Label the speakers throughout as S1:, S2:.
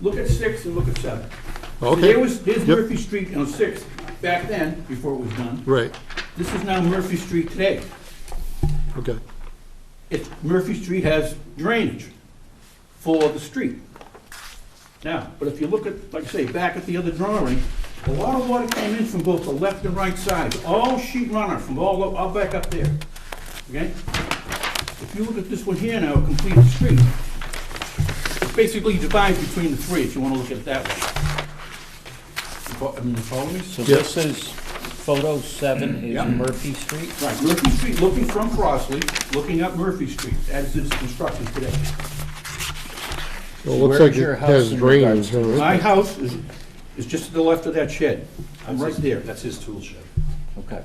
S1: Look at six and look at seven. So
S2: Okay.
S1: There was, there's
S2: Yep.
S1: Murphy Street on six, back then, before it was done.
S2: Right,
S1: This is now Murphy Street today.
S2: okay.
S1: It's, Murphy Street has drainage for the street. Now, but if you look at, like I say, back at the other drawing, a lot of water came in from both the left and right side, all sheet runner from all, o- all back up there, okay? If you look at this one here now, a complete street, it's basically divided between the three, if you wanna look at it that way. You fo- I mean, you follow me?
S3: So
S2: Yeah.
S3: this is, photo seven
S1: Yeah.
S3: is Murphy Street?
S1: Right, Murphy Street, looking from Crossley, looking up Murphy Street, as it's constructed today.
S2: Well, it looks
S3: Where's
S2: like
S3: your
S2: it
S3: house
S2: has
S3: in regards
S2: drainage, all right?
S1: My house is, is just to the left of that shed. I'm right there.
S4: That's his tool shed.
S3: Okay.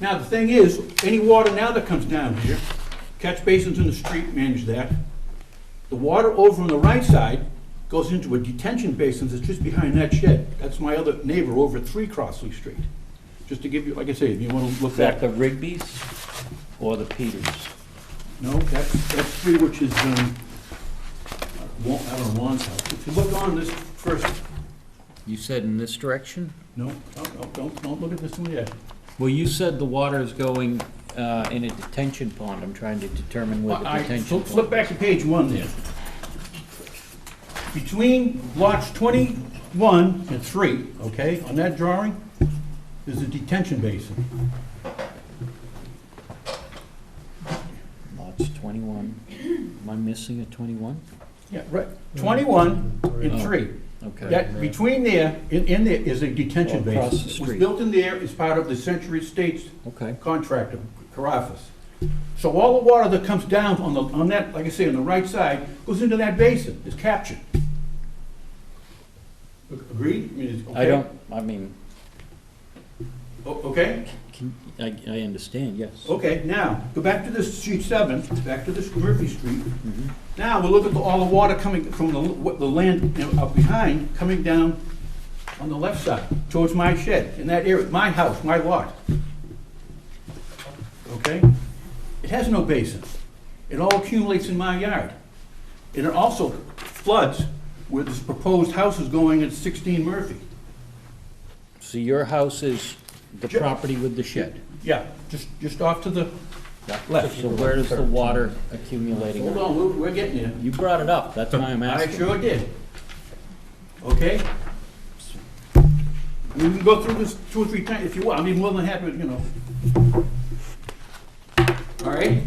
S1: Now, the thing is, any water now that comes down here, catch basins in the street manage that. The water over on the right side goes into a detention basin that's just behind that shed. That's my other neighbor over at Three Crossley Street. Just to give you, like I say, if you want to look
S3: Is
S1: back.
S3: that the Rigby's or the Peters?
S1: No, that's, that's three, which is, um, Wa- I don't know, Juan's house. If you look on this first,
S3: You said in this direction?
S1: no, no, no, don't, don't look at this one yet.
S3: Well, you said the water is going uh, in a detention pond. I'm trying to determine where the
S1: I- I-
S3: detention
S1: flip-
S3: pond.
S1: Flip back to page one there. Between blocks 21 and 3, okay, on that drawing, is a detention basin.
S3: Lots twenty-one. Am I missing a twenty-one?
S1: Yeah, right. 21 and
S3: Oh,
S1: 3.
S3: Okay.
S1: That, between there, in in there is a detention
S3: Oh,
S1: basin.
S3: across the
S1: It was
S3: street.
S1: built in there as part of the Century Estates
S3: Okay.
S1: contractor, Carafas. So all the water that comes down on the, on that, like I say, on the right side, goes into that basin, is captured. Agreed? I mean, it's-
S3: I
S1: okay?
S3: don't, I mean,
S1: O- Okay,
S3: can, I, I understand, yes.
S1: okay, now, go back to this sheet seven, back to this Murphy Street.
S3: Mm-hmm.
S1: Now, we'll look at the- all the water coming from the, what the land you know, up behind, coming down on the left side, towards my shed, in that area, my house, my lot. Okay? It has no basin. It all accumulates in my yard. And it also floods where this proposed house is going at sixteen Murphy.
S3: So your house is the
S1: Ju-
S3: property with the shed?
S1: Yeah, just, just off to the left.
S3: So where is the water accumulating?
S1: Hold on, we're, we're getting there.
S3: You brought it up, that's why I'm
S1: I
S3: asking.
S1: sure did. Okay? I mean, We can go through this two or three times if you want, I mean, more than happy, you know. All right?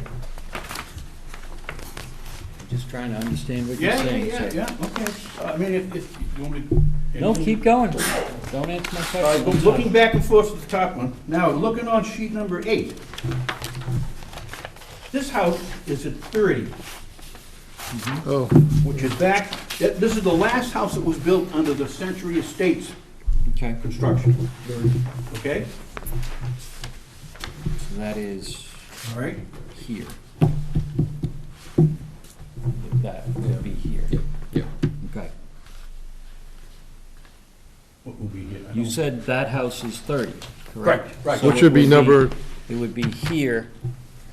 S3: Just trying to understand what you're
S1: Yeah, yeah,
S3: saying.
S1: yeah,
S3: sir.
S1: yeah, okay. Uh, I mean, if, if, you want me to?
S3: No, keep going. Don't answer my
S1: All right,
S3: question.
S1: well, looking back and forth to the top one, now looking on sheet number eight. This house is at thirty.
S2: Oh,
S1: which is back, that- this is the last house that was built under the Century Estates
S3: Okay,
S1: construction. Okay?
S3: so that is
S1: All right.
S3: here. That would be here.
S2: yeah.
S3: Okay.
S1: What will be here? I
S3: You
S1: don't-
S3: said that house is thirty, correct?
S1: Correct, right.
S3: So
S2: Which
S3: it
S2: should be
S3: would
S2: number-
S3: It would be here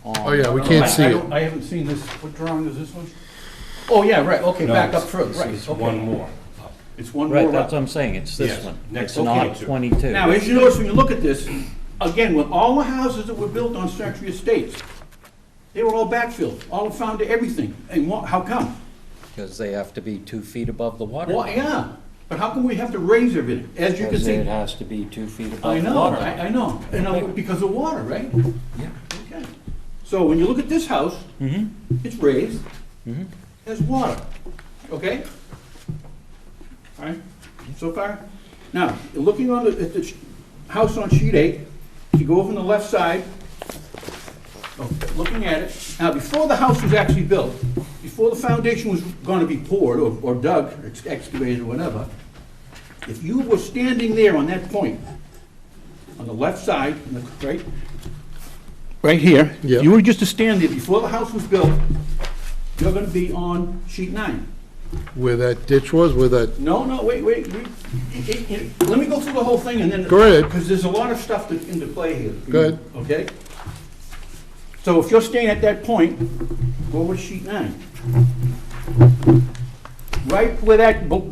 S3: on.
S2: Oh, yeah, we
S1: I-
S2: can't
S1: I
S2: see
S1: don't-
S2: it.
S1: I haven't seen this, what drawing is this one? Oh, yeah, right, okay,
S4: No,
S1: back up
S4: it's-
S1: further,
S4: it's-
S1: right,
S4: It's
S1: okay.
S4: one more.
S1: It's one
S3: Right,
S1: more
S3: that's
S1: up.
S3: what I'm saying, it's this
S4: Yes,
S3: one.
S4: next
S3: It's
S4: to
S3: not
S4: 22.
S3: twenty-two.
S1: Now, as you notice, when you look at this, again, with all the houses that were built on Century Estates, they were all backfilled, all found to everything, and wha- how come?
S3: Because they have to be two feet above the water.
S1: Well, yeah, but how come we have to raise everything? As you can
S3: Because
S1: see,
S3: it has to be two feet
S1: I
S3: above the
S1: know,
S3: water.
S1: I, I know, and uh, because of water, right?
S3: Yeah.
S1: Okay. So when you look at this house, it's raised, has water, okay? All right, so far? Now, looking on the, at the sh- house on sheet eight, if you go over on the left side, oh, looking at it, now, before the house was actually built, before the foundation was gonna be poured or or dug, or ex- excavated, or whatever, if you were standing there on that point, on the left side, on the- right, right here,
S2: Yeah.
S1: if you were just to stand there before the house was built, you're gonna be on sheet nine.
S2: Where that ditch was, where that,
S1: No, no, wait, wait, wait. It- it- it- let me go through the whole thing and then.
S2: Go ahead.
S1: Because there's a lot of stuff that, into play here. for you,
S2: Go ahead.
S1: Okay? So if you're staying at that point, go with sheet nine. right where that bo-